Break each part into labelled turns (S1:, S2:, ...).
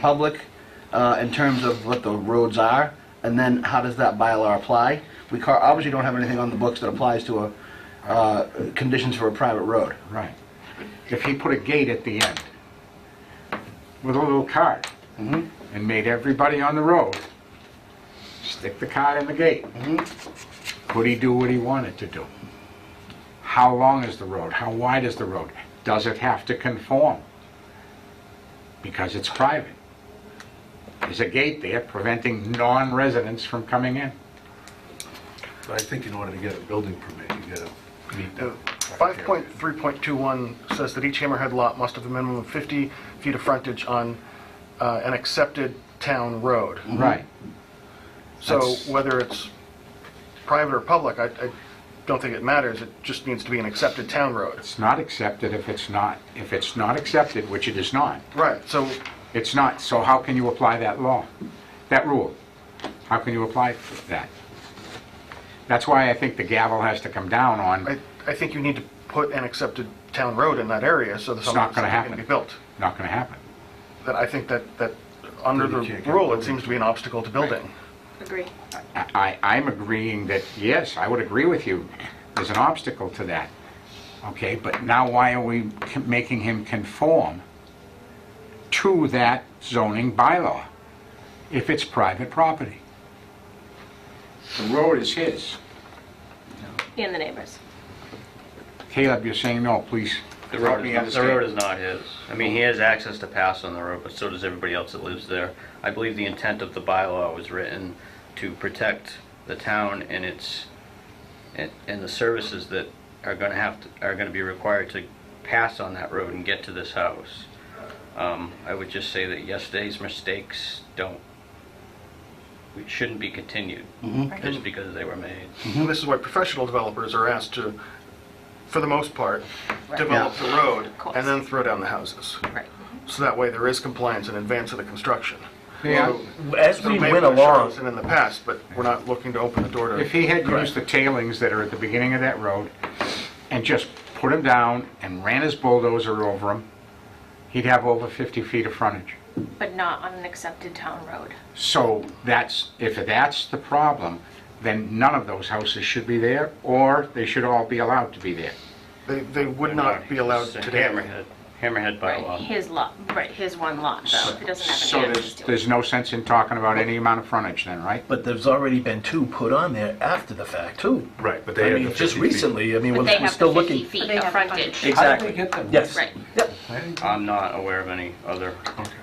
S1: public uh, in terms of what the roads are, and then how does that bylaw apply? We ca- obviously don't have anything on the books that applies to a, uh, conditions for a private road.
S2: Right. If he put a gate at the end with a little card and made everybody on the road stick the card in the gate, could he do what he wanted to do? How long is the road? How wide is the road? Does it have to conform? Because it's private. There's a gate there preventing non-residents from coming in.
S3: I think in order to get a building permit, you gotta meet that. criteria.
S4: 5.3.21 says that each hammerhead lot must have a minimum of 50 feet of frontage on uh, an accepted town road.
S2: Right.
S4: So
S2: That's-
S4: whether it's private or public, I I don't think it matters, it just needs to be an accepted town road.
S2: It's not accepted if it's not, if it's not accepted, which it is not,
S4: Right, so
S2: It's not, so how can you apply that law, that rule? How can you apply that? That's why I think the gavel has to come down
S4: I
S2: on,
S4: I think you need to put an accepted town road in that area so that
S2: It's not
S4: something
S2: gonna
S4: something can
S2: happen.
S4: be built.
S2: not gonna happen.
S4: That I think that, that under the
S3: You can't get a
S4: rule, it
S3: building.
S4: seems to be an obstacle to building.
S5: Agree.
S2: I, I- I'm agreeing that, yes, I would agree with you, there's an obstacle to that. Okay, but now why are we c- making him conform to that zoning bylaw if it's private property? The road is his.
S5: And the neighbors.
S2: Caleb, you're saying no, please.
S6: The
S2: help
S6: road,
S2: me
S6: is- the
S2: understand.
S6: road is not his. I mean, he has access to pass on the road, but so does everybody else that lives there. I believe the intent of the bylaw was written to protect the town and its, and and the services that are gonna have, to are gonna be required to pass on that road and get to this house. Um, I would just say that yesterday's mistakes don't, we shouldn't be continued,
S4: Mm-hmm.
S6: just because they were made.
S4: And this is why professional developers are asked to, for the most part, develop the road
S5: course.
S4: and then throw down the houses.
S5: Right.
S4: So that way there is compliance in advance of the construction.
S2: Yeah.
S7: As we went along,
S4: And in the past, but we're not looking to open the door to.
S2: If he had used the tailings that are at the beginning of that road and just put them down and ran his bulldozer over them, he'd have over 50 feet of frontage.
S5: But not on an accepted town road.
S2: So that's, if that's the problem, then none of those houses should be there, or they should all be allowed to be there.
S4: They, they would not be allowed
S6: It's a
S4: today.
S6: Hammerhead, hammerhead
S5: Right,
S6: bylaw.
S5: his lot, right, his one lot, though. It doesn't have
S2: So
S5: any access
S2: there's,
S5: to it.
S2: there's no sense in talking about any amount of frontage then, right?
S7: but there's already been two put on there after the fact, too.
S3: Right, but
S7: I
S3: they
S7: mean,
S3: have the 50
S7: just
S3: feet.
S7: recently, I mean,
S5: But
S7: we're
S5: they
S7: we're
S5: have the
S7: still
S5: 50
S7: looking.
S5: feet of frontage.
S7: Exactly. Yes.
S5: Right.
S7: Yep.
S6: I'm not aware of any other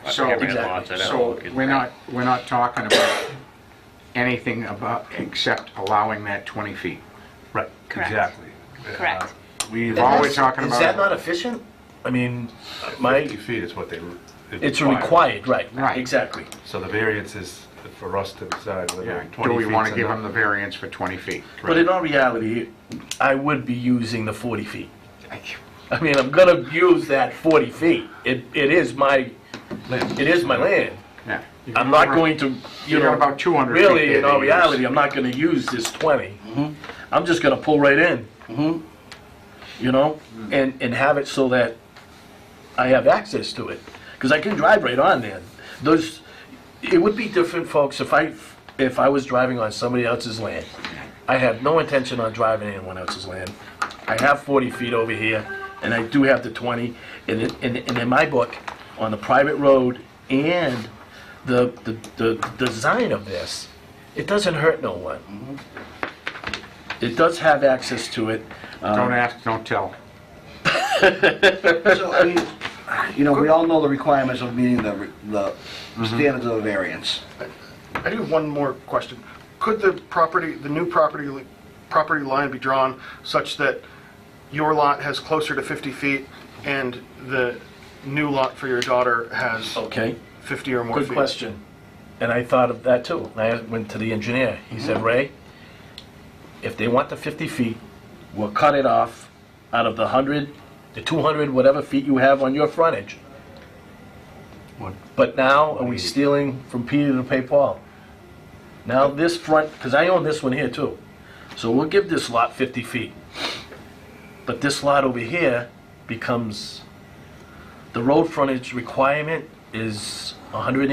S2: So,
S6: hammerhead lots. I'd have to
S2: so
S6: look at
S2: we're
S6: that.
S2: not, we're not talking about anything about, except allowing that 20 feet.
S3: Right,
S5: Correct.
S3: exactly. Uh,
S5: Correct.
S3: We,
S2: All we're talking
S7: Is
S2: about.
S7: that not efficient? I mean, my,
S3: 50 feet is what they.
S7: it's required, right.
S2: Right.
S7: Exactly.
S3: So the variance is for us to decide whether
S2: Yeah,
S3: 20 feet's enough.
S2: do we want to give them the variance for 20 feet?
S7: But in all reality, I would be using the 40 feet.
S2: Thank you.
S7: I mean, I'm gonna use that 40 feet. It, it is my,
S3: Land.
S7: it is my land.
S2: Yeah.
S7: I'm not going to, you
S2: You got
S7: know,
S2: about 200 feet
S7: really,
S2: there
S7: in
S2: to
S7: all
S2: use. Mm-hmm.
S7: reality, I'm not gonna use this 20. I'm just gonna pull right in. You know,
S2: Mm-hmm.
S7: and, and have it so that I have access to it, because I can drive right on there. Those, it would be different, folks, if I, if I was driving on somebody else's land. I have no intention on driving anyone else's land. I have 40 feet over here, and I do have the 20, and in, and and in my book, on the private road and the, the, the design of this, it doesn't hurt no one. It does have access to it.
S2: Don't
S7: Um,
S2: ask, don't tell.
S1: So, I mean, you know, we all know the requirements of meeting the, re- the standards of a variance.
S4: I do have one more question. Could the property, the new property, li- property line be drawn such that your lot has closer to 50 feet and the new lot for your daughter has
S7: Okay.
S4: 50 or more feet?
S7: Oh. Good question. And I thought of that too. And I went to the engineer. He said,
S3: Mm-hmm.
S7: Ray, if they want the 50 feet, we'll cut it off out of the 100, the 200, whatever feet you have on your frontage.
S3: What?
S7: But now, are we stealing from Peter to pay Paul? Now this front, because I own this one here too. So we'll give this lot 50 feet. But this lot over here becomes, the road frontage requirement is 180